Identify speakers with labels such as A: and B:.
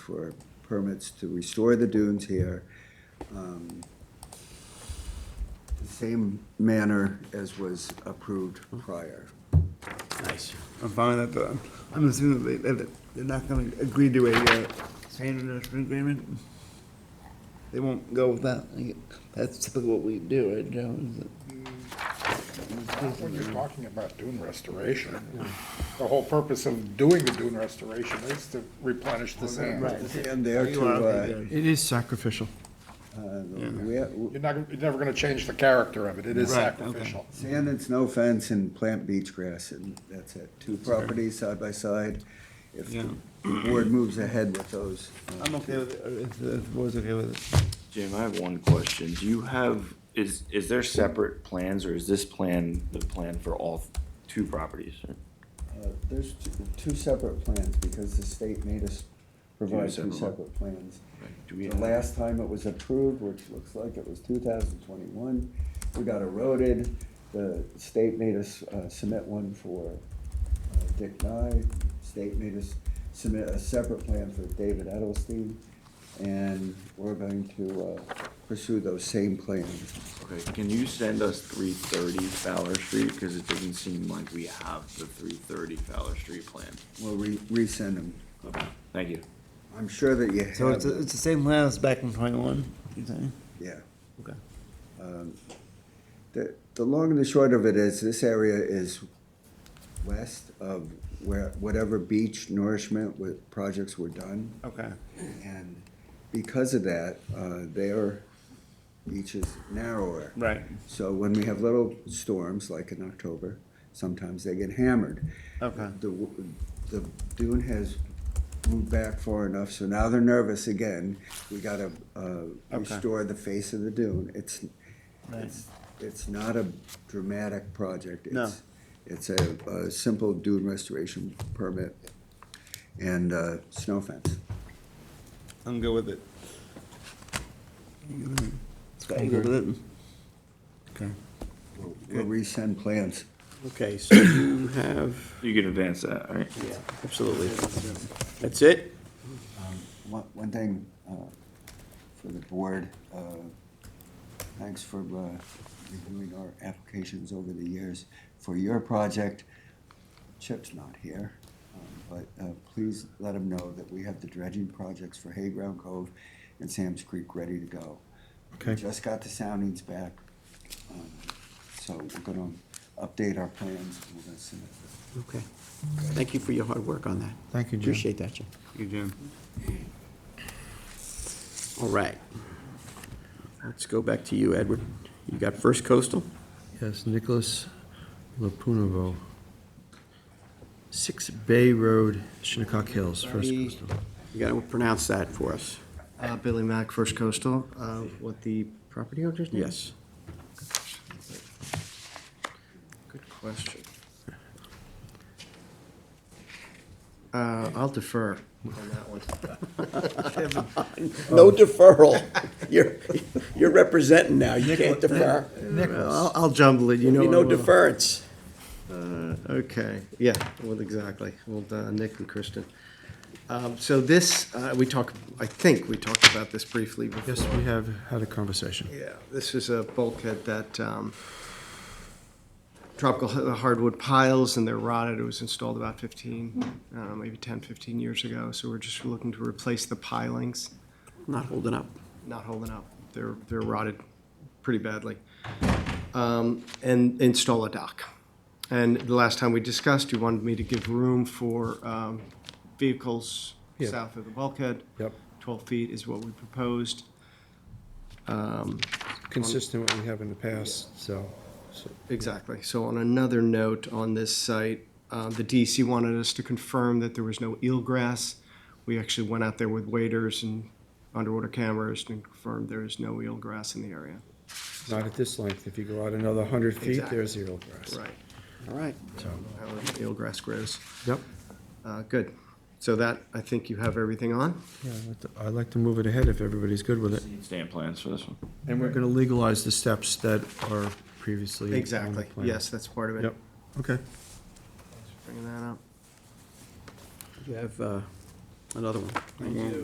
A: for permits to restore the dunes here. um, the Same manner as was approved prior.
B: Nice.
C: I'm fine with that. but I'm assuming that they, that they're not gonna agree to a, uh, sand industrial agreement. They won't go with that. Like, That's typically what we do, right, Joe? Is it-
D: When you're talking about dune restoration, the whole purpose of doing the dune restoration is to replenish the sand.
A: And there
C: You
A: to,
C: are,
A: uh,
C: okay, good.
E: It is sacrificial.
A: uh, we-
D: You're not, you're never gonna change the character of it, it is
C: Right, okay.
D: sacrificial.
A: Sand and snow fence and plant beach grass, and that's it. Two properties side by side. If the board moves ahead with those. uh,
C: I'm okay with it, or if, if the board's okay with it.
B: Jim, I have one question. Do you have, is, is there separate plans or is this plan the plan for all two properties?
A: Uh, There's t- two separate plans, because the state made us provide two
B: separate one.
A: separate plans.
B: Right, do we
A: The
B: have-
A: last time it was approved, which looks like it was two thousand twenty-one, we got eroded. The state made us uh, submit one for uh, Dick Nye, state made us submit a separate plan for David Edelstein, and we're going to uh, pursue those same plans.
B: Okay, can you send us three thirty Fowler Street? Because it doesn't seem like we have the three thirty Fowler Street plan.
A: We'll re- resend them.
B: Okay, Thank you.
A: I'm sure that you have.
C: So it's,
A: them.
C: it's the same plan as back in twenty-one, you saying?
A: Yeah.
C: Okay.
A: Um, The, the long and the short of it is, this area is west of where, whatever beach nourishment with projects were done.
C: Okay.
A: And because of that, uh, their beach is narrower.
C: Right.
A: So when we have little storms, like in October, sometimes they get hammered.
C: Okay.
A: The, w- the dune has moved back far enough, so now they're nervous again. We gotta, uh, restore the face of the dune. It's, it's, it's not a dramatic project.
C: No.
A: It's- It's a, a simple dune restoration permit and, uh, snow fence.
C: I'm good with it. Scott, you good with
E: Okay.
A: We'll we'll resend plans.
E: Okay, so you have,
B: You can advance that, all right?
E: yeah, absolutely. That's it?
A: One, one thing, uh, for the board, uh, thanks for, uh, reviewing our applications over the years. For your project, Chip's not here, um, but, uh, please let him know that we have the dredging projects for Hayground Cove and Sam's Creek ready to go. We
E: Okay.
A: Just got the soundings back, um, so we're gonna update our plans, and we're gonna submit this.
E: Okay. Thank you for your hard work on that.
C: Thank you, Jim.
E: Appreciate that, Jim.
C: Good, Jim.
E: All right. Let's go back to you, Edward. You got First Coastal,
F: Yes, Nicholas Lapunovo, 6 Bay Road, Shinnecock Hills, First
E: Sorry.
F: Coastal.
E: you gotta pronounce that for us.
G: Uh, Billy Mack, First Coastal, uh, what the property owner's name?
E: Yes.
G: Good question. Uh, I'll defer on that one.
E: No deferral. You're, you're representing now. You can't defer.
G: I'll, I'll jumble it, you know.
E: Be no
G: I will.
E: deference.
G: Uh, Okay, yeah, well, exactly, well, uh, Nick and Kristen. Um, So this, uh, we talked, I think we talked about this briefly before.
F: Yes, we have had a conversation.
G: Yeah, this is a bulkhead that um, tropical h- uh, hardwood piles and they're rotted. It was installed about 15, I don't know, maybe 10, 15 years ago. So we're just looking to replace the pilings,
E: Not holding up.
G: not holding up. They're, they're rotted pretty badly. Um, And install a dock. And the last time we discussed, you wanted me to give room for um, vehicles
F: Yeah.
G: south of the bulkhead.
F: Yep.
G: 12 feet is what we proposed.
F: Consistent with what we have in the past, so, so
G: Exactly. So on another note on this site, uh, the DEC wanted us to confirm that there was no eelgrass. We actually went out there with waders and underwater cameras and confirmed there is no eelgrass in the area.
F: not at this length. If you go out another 100 feet,
G: Exactly.
F: there's zero grass.
G: Right.
E: All right.
G: How eelgrass grows.
F: Yep.
G: Uh, Good. So that, I think you have everything on.
F: Yeah, I'd like to- I'd like to move it ahead if everybody's good with it.
B: Stamp plans for this one.
F: And we're going to legalize the steps that are previously on the
G: Exactly.
F: plan.
G: Yes, that's part of it.
F: Yep, okay.
G: Bringing that up.
E: You have uh, another one.